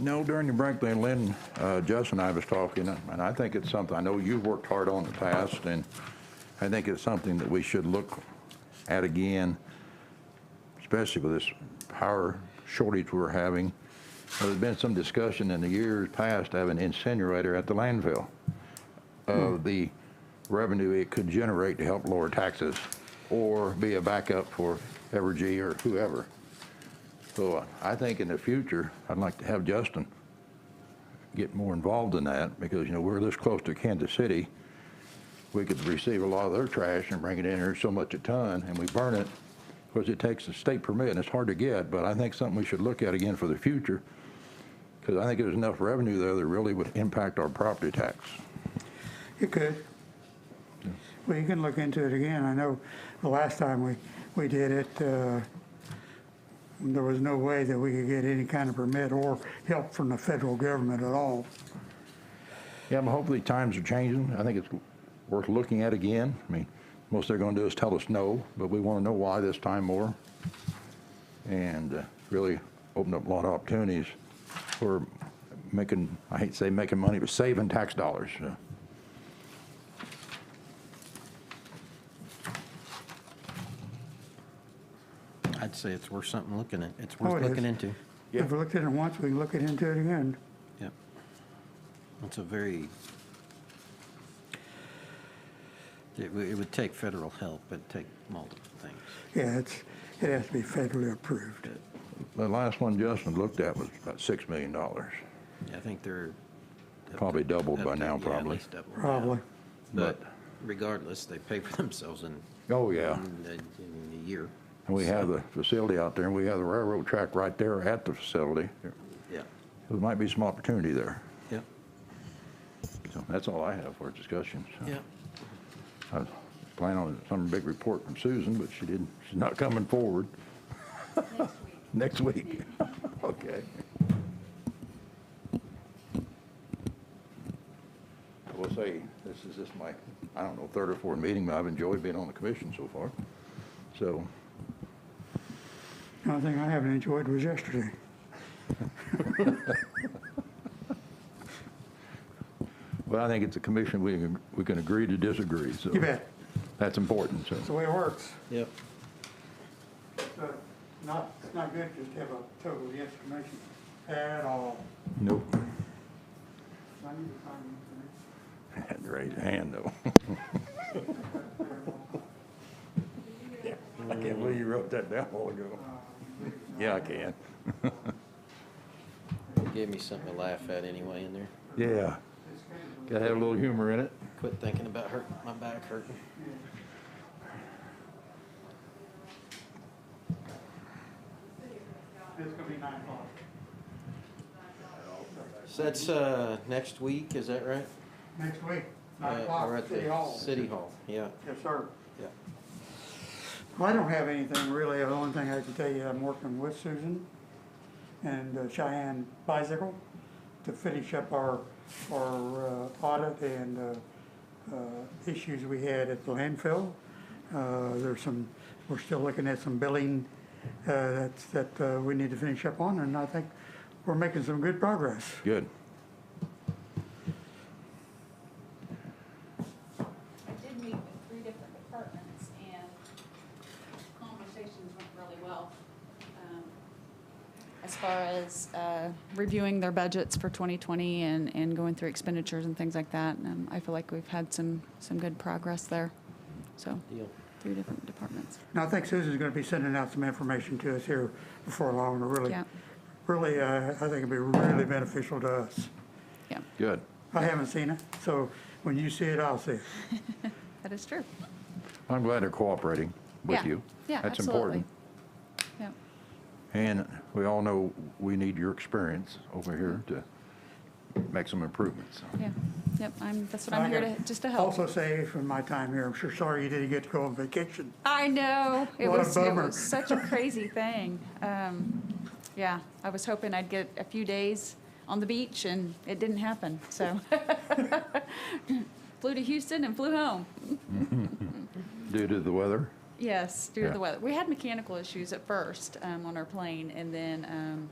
No, during the break, then Lynn, uh, Jess and I was talking, and I think it's something, I know you've worked hard on in the past, and I think it's something that we should look at again, especially with this power shortage we're having. There's been some discussion in the years past to have an incinerator at the landfill of the revenue it could generate to help lower taxes or be a backup for Evergy or whoever. So uh, I think in the future, I'd like to have Justin get more involved in that because, you know, we're this close to Kansas City. We could receive a lot of their trash and bring it in here so much a ton and we burn it. Of course, it takes a state permit and it's hard to get, but I think something we should look at again for the future. Because I think there's enough revenue there that really would impact our property tax. You could. Well, you can look into it again. I know the last time we, we did it, uh, there was no way that we could get any kind of permit or help from the federal government at all. Yeah, but hopefully times are changing. I think it's worth looking at again. I mean, most they're gonna do is tell us no, but we wanna know why this time more. And uh, really open up a lot of opportunities for making, I hate to say making money, but saving tax dollars. uh, I'd say it's worth something looking at. It's Oh, worth it is. looking into. If we looked at it once, we can look it into it again. Yep. It's a very, it w- it would take federal help, it'd take multiple things. Yeah, it's, it has to be federally approved. The last one Justin looked at was about six million dollars. I think they're. up to- Probably doubled up by to- now, yeah, at probably. least doubled now. Probably. But regardless, they pay for themselves in, Oh, yeah. in a- in a year. And we have So, the facility out there and we have the railroad track right there at the facility. Yeah, There might be some opportunity there. yeah, So that's all I have for discussion. so. yeah. I was planning on some big report from Susan, but she didn't, she's not coming forward. Next week. Okay. I will say, this is just my, I don't know, third or fourth meeting, but I've enjoyed being on the commission so far. So, The only thing I haven't enjoyed was yesterday. but I think it's a commission, we can, we can agree to disagree, so. You bet. That's important, It's so. the way it works. Yep. But not, it's not good just to have a total yes or no at all. Nope. I need to find the Had to raise a hand, though. Yeah, I can't believe you wrote that down a while ago. Yeah, I can. Gave me something to laugh at anyway in there. Yeah. Gotta have a little humor in it. Quit thinking about hurting, my back hurting. information. It's gonna be nine o'clock. So that's, uh, next week, is that right? Next week, Uh, nine we're o'clock, at the City Hall. City Hall, yeah, Yes, sir. yeah. Well, I don't have anything really. The only thing I can tell you, I'm working with Susan and uh, Cheyenne Bicycle to finish up our, our uh, audit and uh, uh, issues we had at the landfill. Uh, There's some, we're still looking at some billing uh, that's, that uh, we need to finish up on, and I think we're making some good progress. Good. I did meet with three different departments and conversations went really well. um, As far as uh, reviewing their budgets for 2020 and, and going through expenditures and things like that. And I feel like we've had some, some good progress there. So, Deal. three different departments. Now, I think Susan's gonna be sending out some information to us here before long, to really, Yeah. really, uh, I think it'd be really beneficial to us. Yeah, Good. I haven't seen it, so when you see it, I'll see it. that is true. I'm glad they're cooperating with Yeah. you. Yeah, That's absolutely. important. Yeah, And we all know we need your experience over here to make some improvements. yeah, yep, I'm, that's what I'm here to, just to help. Also say from my time here, I'm sure sorry you didn't get to go on vacation. I know. It What a was, it bummer. was such a crazy thing. Um, yeah, I was hoping I'd get a few days on the beach and it didn't happen, so. Flew to Houston and flew home. Due to the weather, Yes, due to Yeah. the weather. We had mechanical issues at first um, on our plane, and then um,